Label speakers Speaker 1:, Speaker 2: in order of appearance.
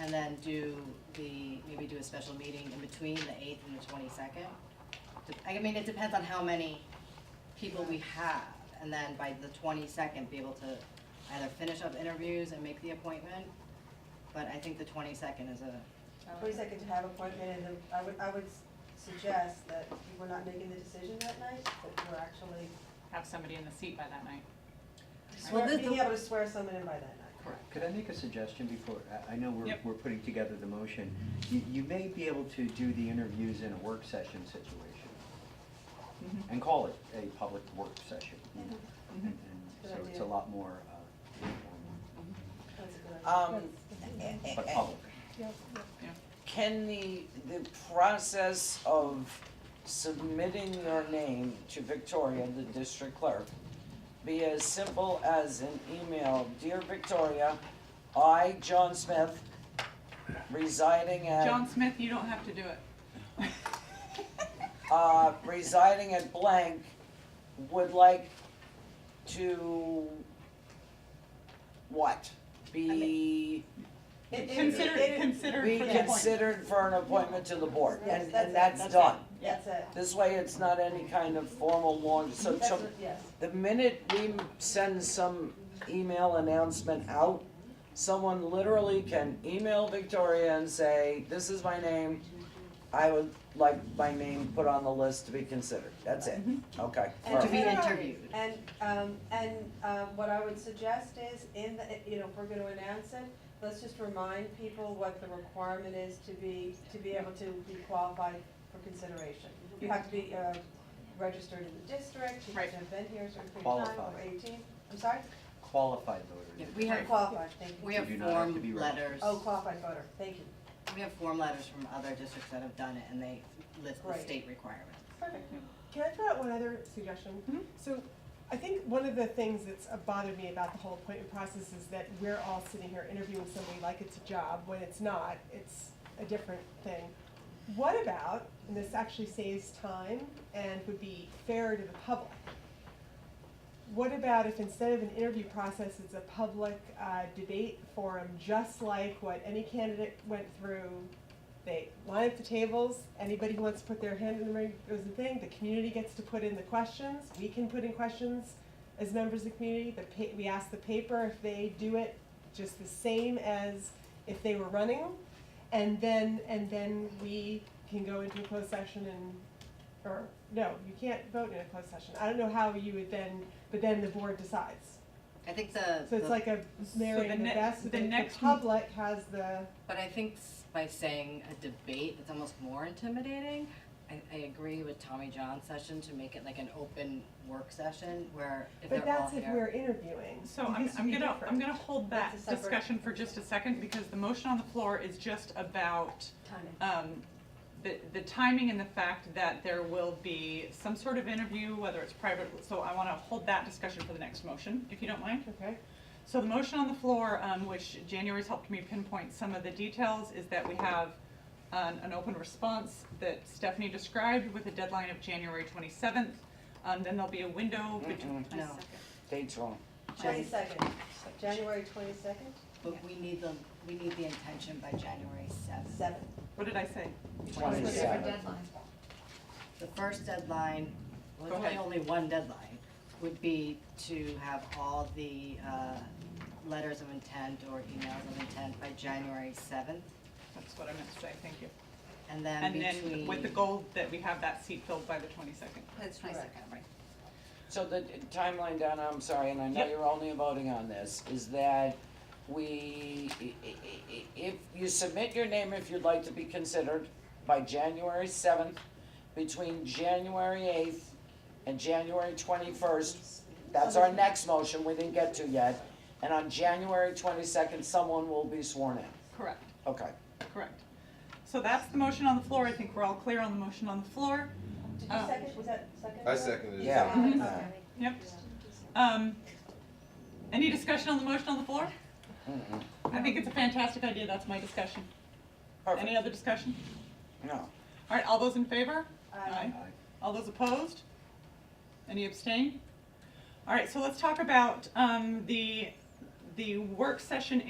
Speaker 1: and then do the, maybe do a special meeting in between the eighth and the twenty-second. I mean, it depends on how many people we have, and then by the twenty-second, be able to either finish up interviews and make the appointment. But I think the twenty-second is a,
Speaker 2: Please, I could have appointment, and then I would, I would s- suggest that we're not making the decision that night, that we're actually,
Speaker 3: have somebody in the seat by that night.
Speaker 2: swear-
Speaker 4: the-
Speaker 2: being able to swear someone in by that night.
Speaker 4: Could I make a suggestion before, I, I know we're,
Speaker 3: Yep.
Speaker 4: we're putting together the motion. You, you may be able to do the interviews in a work session situation.
Speaker 3: Mhm.
Speaker 4: And call it a public work session. you know,
Speaker 3: Mhm.
Speaker 4: and- and So it's a lot more, uh,
Speaker 2: That's a good idea.
Speaker 5: Um,
Speaker 4: informal, but public.
Speaker 5: can the, the process of submitting your name to Victoria, the district clerk, be as simple as an email, dear Victoria, I, John Smith, residing at.
Speaker 3: John Smith, you don't have to do it.
Speaker 5: uh, residing at blank, would like to, what? Be,
Speaker 2: It- it-
Speaker 3: Consider,
Speaker 2: it- it-
Speaker 3: consider
Speaker 5: be
Speaker 3: for the appointment.
Speaker 5: considered for an appointment to the board,
Speaker 2: Yes,
Speaker 5: and,
Speaker 2: that's
Speaker 5: and
Speaker 2: it,
Speaker 5: that's
Speaker 2: that's
Speaker 5: done.
Speaker 2: That's it.
Speaker 5: This way, it's not any kind of formal long, so,
Speaker 2: That's
Speaker 5: so,
Speaker 2: what- Yes.
Speaker 5: the minute we send some email announcement out, someone literally can email Victoria and say, this is my name, I would like my name put on the list to be considered, that's it, okay.
Speaker 2: And
Speaker 1: Mm-hmm. to be
Speaker 2: Right.
Speaker 1: interviewed.
Speaker 2: And, um, and, um, what I would suggest is in the, you know, if we're gonna announce it, let's just remind people what the requirement is to be, to be able to be qualified for consideration. You have to be, uh, registered in the district, you have
Speaker 3: Right.
Speaker 2: to have been here a certain period of time, or
Speaker 4: Qualified.
Speaker 2: eighteen, I'm sorry?
Speaker 4: Qualified voters.
Speaker 1: we have,
Speaker 2: Qualified, thank you.
Speaker 1: we have
Speaker 4: You do not have to
Speaker 1: form
Speaker 4: be registered.
Speaker 1: letters.
Speaker 2: Oh, qualified voter, thank you,
Speaker 1: We have form letters from other districts that have done it, and they list the
Speaker 2: Right.
Speaker 1: state requirements.
Speaker 2: perfect.
Speaker 6: Can I throw out one other suggestion?
Speaker 3: Mhm.
Speaker 6: So I think one of the things that's uh, bothered me about the whole appointment process is that we're all sitting here interviewing somebody like it's a job, when it's not, it's a different thing. What about, and this actually saves time and would be fair to the public, what about if instead of an interview process, it's a public uh, debate forum, just like what any candidate went through? They line up the tables, anybody who wants to put their hand in the ring goes and thing, the community gets to put in the questions, we can put in questions as members of the community, the pa- we ask the paper if they do it just the same as if they were running. And then, and then we can go into a closed session and, or, no, you can't vote in a closed session. I don't know how you would then, but then the board decides.
Speaker 1: I think the,
Speaker 6: So it's
Speaker 1: the-
Speaker 6: like a
Speaker 3: So
Speaker 6: marriage
Speaker 3: the
Speaker 6: of the
Speaker 3: ne-
Speaker 6: best,
Speaker 3: the
Speaker 6: but then the
Speaker 3: next m-
Speaker 6: public has the,
Speaker 1: but I think s- by saying a debate, it's almost more intimidating. I, I agree with Tommy John's session to make it like an open work session where if they're
Speaker 6: but
Speaker 1: all
Speaker 6: that's if
Speaker 1: here-
Speaker 6: we're interviewing.
Speaker 3: So I'm,
Speaker 6: This would
Speaker 3: I'm
Speaker 6: be
Speaker 3: gonna,
Speaker 6: different.
Speaker 3: I'm gonna hold that
Speaker 2: That's a separate-
Speaker 3: discussion for just a second because the motion on the floor is just about,
Speaker 2: Timing.
Speaker 3: um, the, the timing and the fact that there will be some sort of interview, whether it's private, so I wanna hold that discussion for the next motion, if you don't mind.
Speaker 6: Okay,
Speaker 3: So the motion on the floor, um, which January's helped me pinpoint some of the details, is that we have an, an open response that Stephanie described with a deadline of January twenty-seventh. Um, then there'll be a window between.
Speaker 5: Mm-mm.
Speaker 1: No.
Speaker 5: Date's wrong.
Speaker 2: Twenty-second, January twenty-second,
Speaker 1: But we need the, we need the intention by January seventh.
Speaker 2: seven.
Speaker 3: What did I say?
Speaker 5: Twenty-seven.
Speaker 1: The first deadline, well,
Speaker 3: Go
Speaker 1: it's really
Speaker 3: ahead.
Speaker 1: only one deadline, would be to have all the, uh, letters of intent or emails of intent by January seventh.
Speaker 3: That's what I meant to say, thank you.
Speaker 1: And then
Speaker 3: And
Speaker 1: between.
Speaker 3: then with the goal that we have that seat filled by the twenty-second.
Speaker 7: That's
Speaker 2: Correct.
Speaker 7: twenty-second, right.
Speaker 5: So the timeline, Donna, I'm sorry, and I know
Speaker 3: Yep.
Speaker 5: you're only voting on this, is that we, i- i- i- if you submit your name if you'd like to be considered by January seventh, between January eighth and January twenty-first, that's our next motion, we didn't get to yet, and on January twenty-second, someone will be sworn in,
Speaker 3: Correct.
Speaker 5: okay.
Speaker 3: Correct. So that's the motion on the floor, I think we're all clear on the motion on the floor.
Speaker 2: Did you
Speaker 3: Uh,
Speaker 2: second, was that second?
Speaker 8: I seconded it.
Speaker 5: Yeah.
Speaker 2: Second.
Speaker 5: Mhm.
Speaker 3: Yep. Um, any discussion on the motion on the floor?
Speaker 5: Mm-mm.
Speaker 3: I think it's a fantastic idea, that's my discussion. Any
Speaker 5: Perfect,
Speaker 3: other discussion?
Speaker 5: no,
Speaker 3: All right, all those in favor?
Speaker 2: Aye.
Speaker 4: Aye.
Speaker 3: All those opposed? Any abstain? All right, so let's talk about, um, the, the work session